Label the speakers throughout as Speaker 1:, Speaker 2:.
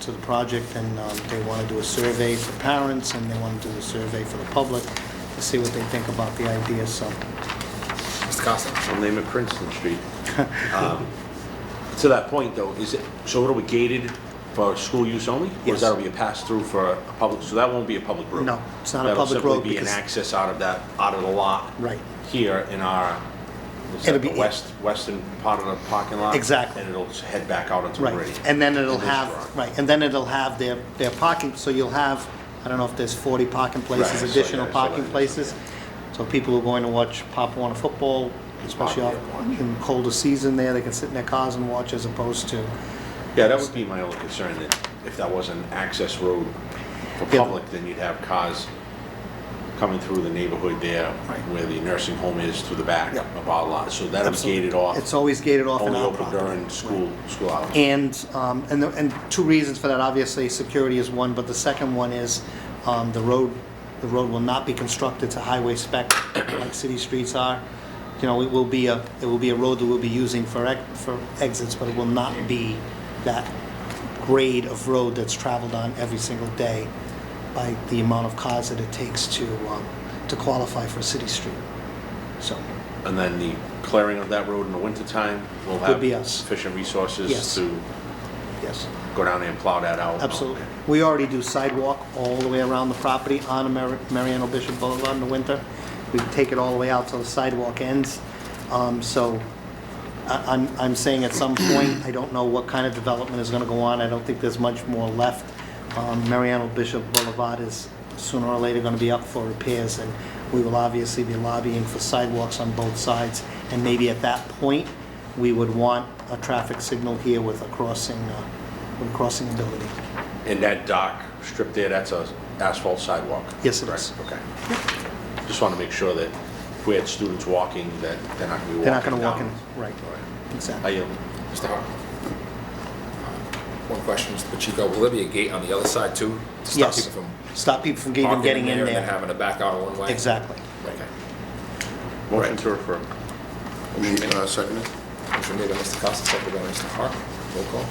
Speaker 1: to the project, and um, they want to do a survey for parents, and they want to do a survey for the public to see what they think about the idea, so.
Speaker 2: Mr. Costa?
Speaker 3: I'll name it Princeton Street. Um, To that point, though, is it, so what are we gated for school use only? Or
Speaker 1: Yes.
Speaker 3: is that gonna be a pass-through for a public, so that won't be a public road?
Speaker 1: No, it's not a
Speaker 3: That'll
Speaker 1: public
Speaker 3: simply
Speaker 1: road
Speaker 3: be an
Speaker 1: because-
Speaker 3: access out of that, out of the lot?
Speaker 1: Right.
Speaker 3: Here in our, what's
Speaker 1: It'll
Speaker 3: that, the
Speaker 1: be-
Speaker 3: west, western part of the parking lot?
Speaker 1: Exactly.
Speaker 3: And it'll head back out into Meridian?
Speaker 1: Right, and then it'll
Speaker 3: this
Speaker 1: have,
Speaker 3: drawing.
Speaker 1: right, and then it'll have their, their parking, so you'll have, I don't know if there's 40 parking
Speaker 3: Right, I
Speaker 1: places,
Speaker 3: saw-
Speaker 1: additional
Speaker 3: yeah, I saw that,
Speaker 1: parking
Speaker 3: yeah.
Speaker 1: places. So people who are going to watch Pop Warner football, especially
Speaker 3: Pop
Speaker 1: out in colder season there, they can sit in their cars and watch as opposed to,
Speaker 3: Yeah, that would be my only concern, that if that was an access road for
Speaker 1: Yeah.
Speaker 3: public, then you'd have cars coming through the neighborhood there, where the nursing home is to the back
Speaker 1: Yeah.
Speaker 3: of our lot, so that'll be
Speaker 1: Absolutely.
Speaker 3: gated off.
Speaker 1: it's always gated off in
Speaker 3: Only
Speaker 1: our
Speaker 3: open
Speaker 1: property.
Speaker 3: during school, school hours.
Speaker 1: And, um, and, the- and two reasons for that, obviously, security is one, but the second one is, um, the road, the road will not be constructed to highway spec like city streets are. You know, it will be a, it will be a road that we'll be using for ex, for exits, but it will not be that grade of road that's traveled on every single day by the amount of cars that it takes to, um, to qualify for a city street. So,
Speaker 3: And then the clearing of that road in the wintertime, we'll
Speaker 1: Would be
Speaker 3: have
Speaker 1: us.
Speaker 3: sufficient
Speaker 1: Yes.
Speaker 3: resources to
Speaker 1: yes.
Speaker 3: go down there and plow that out.
Speaker 1: Absolutely. We already do sidewalk all the way around the property on Amer- Mariano Bishop Boulevard in the winter. We take it all the way out till the sidewalk ends. Um, So I- I'm, I'm saying at some point, I don't know what kind of development is going to go on. I don't think there's much more left. Um, Mariano Bishop Boulevard is sooner or later going to be up for repairs, and we will obviously be lobbying for sidewalks on both sides. And maybe at that point, we would want a traffic signal here with a crossing, uh, with a crossing ability.
Speaker 3: And that dock strip there, that's a asphalt sidewalk?
Speaker 1: Yes, it
Speaker 3: correct?
Speaker 1: is.
Speaker 3: Okay. Just want to make sure that if we had students walking, that they're not going to be walking down.
Speaker 1: They're not going to walk in, right,
Speaker 3: I
Speaker 1: exactly.
Speaker 3: yield.
Speaker 2: Mr. Hawk? Um, One question, Mr. Pacheco, will there be a gate on the other side too? to Stop
Speaker 1: Yes,
Speaker 2: people from
Speaker 1: stop people from even
Speaker 2: parking
Speaker 1: getting
Speaker 2: in
Speaker 1: in
Speaker 2: there and then
Speaker 1: there.
Speaker 2: having to back out one way?
Speaker 1: Exactly.
Speaker 2: Okay.
Speaker 3: Motion to refer.
Speaker 4: Uh, Second it?
Speaker 2: Motion made by Mr. Costa, seconded by Mr. Hawk. Roll call?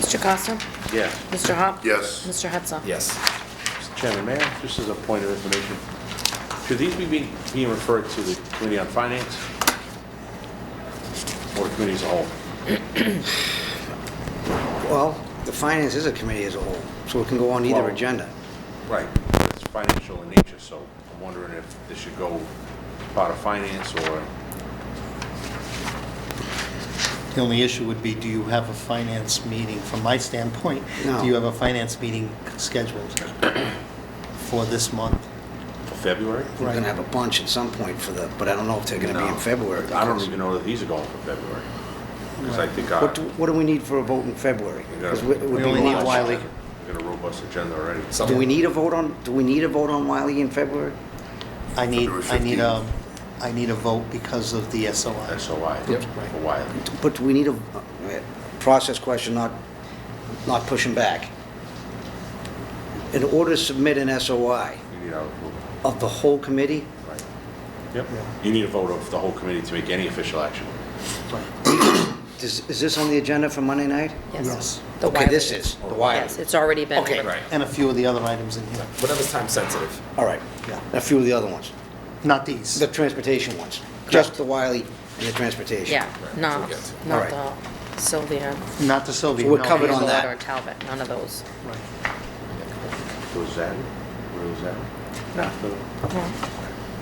Speaker 5: Mr. Costa?
Speaker 3: Yes.
Speaker 5: Mr. Hop?
Speaker 4: Yes.
Speaker 5: Mr. Hudson?
Speaker 2: Yes.
Speaker 3: Mr. Chairman, may I, just as a point of information, should these be being being referred to the Committee on Finance or the committee as a whole?
Speaker 6: Well, the finance is a committee as a whole, so it can go on either
Speaker 3: Well-
Speaker 6: agenda.
Speaker 3: Right. It's financial in nature, so I'm wondering if this should go part of finance or,
Speaker 1: The only issue would be, do you have a finance meeting? From my standpoint,
Speaker 6: No.
Speaker 1: do you have a finance meeting scheduled for this month?
Speaker 3: for February?
Speaker 6: We're gonna have a bunch at some point for the, but I don't know if they're gonna be
Speaker 3: No.
Speaker 6: in February.
Speaker 3: I don't
Speaker 6: because-
Speaker 3: even know that these are going for February. Because I think
Speaker 6: What
Speaker 3: our...
Speaker 6: do, what do we need for a vote in February?
Speaker 3: we got a-
Speaker 6: Because it would
Speaker 1: We
Speaker 6: be
Speaker 1: only need
Speaker 6: March.
Speaker 1: Wiley.
Speaker 3: we got a robust agenda already.
Speaker 6: Do we need a vote on, do we need a vote on Wiley in February?
Speaker 1: I need, I
Speaker 4: February
Speaker 1: need a, I need a vote because of the SOI.
Speaker 3: SOI
Speaker 2: Yep.
Speaker 3: for Wiley.
Speaker 6: But do we need a, uh, process question, not, not pushing back. In order to submit an SOI
Speaker 3: You need our approval,
Speaker 6: of the whole committee,
Speaker 3: right? Yep. You need a vote of the whole committee to make any official action.
Speaker 6: is, is this on the agenda for Monday night?
Speaker 1: Yes.
Speaker 5: The
Speaker 6: Okay, this
Speaker 5: Wiley.
Speaker 6: is, the Wiley.
Speaker 5: Yes, it's already been.
Speaker 6: Okay.
Speaker 2: Right.
Speaker 1: And a few of the other items in here,
Speaker 2: Whatever's time sensitive.
Speaker 6: All right,
Speaker 1: Yeah.
Speaker 6: a few of the other ones.
Speaker 1: not these.
Speaker 6: The transportation ones, just the Wiley and the transportation.
Speaker 5: Yeah, not,
Speaker 2: We'll get to it.
Speaker 5: not
Speaker 6: Alright.
Speaker 5: the Sylvia,
Speaker 1: Not the Sylvia.
Speaker 6: So we're
Speaker 1: no.
Speaker 6: covered on
Speaker 5: Hazelwood,
Speaker 6: that.
Speaker 5: or Talbot, none of those.
Speaker 1: Right.
Speaker 3: Was that, where was that? No.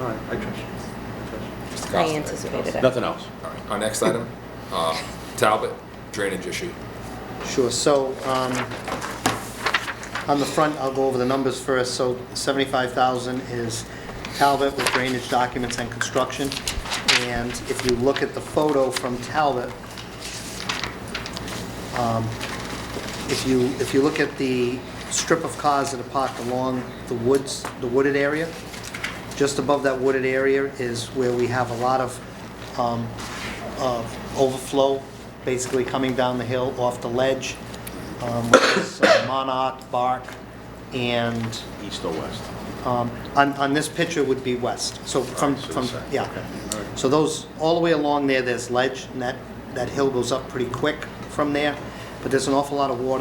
Speaker 3: All right, I trust you. I trust you.
Speaker 2: Mr. Costa?
Speaker 5: I anticipated it.
Speaker 3: Nothing else?
Speaker 2: All right, Our next item, uh, Talbot drainage issue.
Speaker 1: Sure, so, um, on the front, I'll go over the numbers first. So 75,000 is Talbot with drainage documents and construction. And if you look at the photo from Talbot, um, if you, if you look at the strip of cars that are parked along the woods, the wooded area, just above that wooded area is where we have a lot of um, of overflow, basically coming down the hill off the ledge, um, which is, uh, monarch, bark, and
Speaker 3: East or west?
Speaker 1: um, on, on this picture would be west, so from,
Speaker 3: Right, so
Speaker 1: from,
Speaker 3: the side,
Speaker 1: yeah.
Speaker 3: okay, all right.
Speaker 1: So those, all the way along there, there's ledge, and that, that hill goes up pretty quick from there, but there's an awful lot of water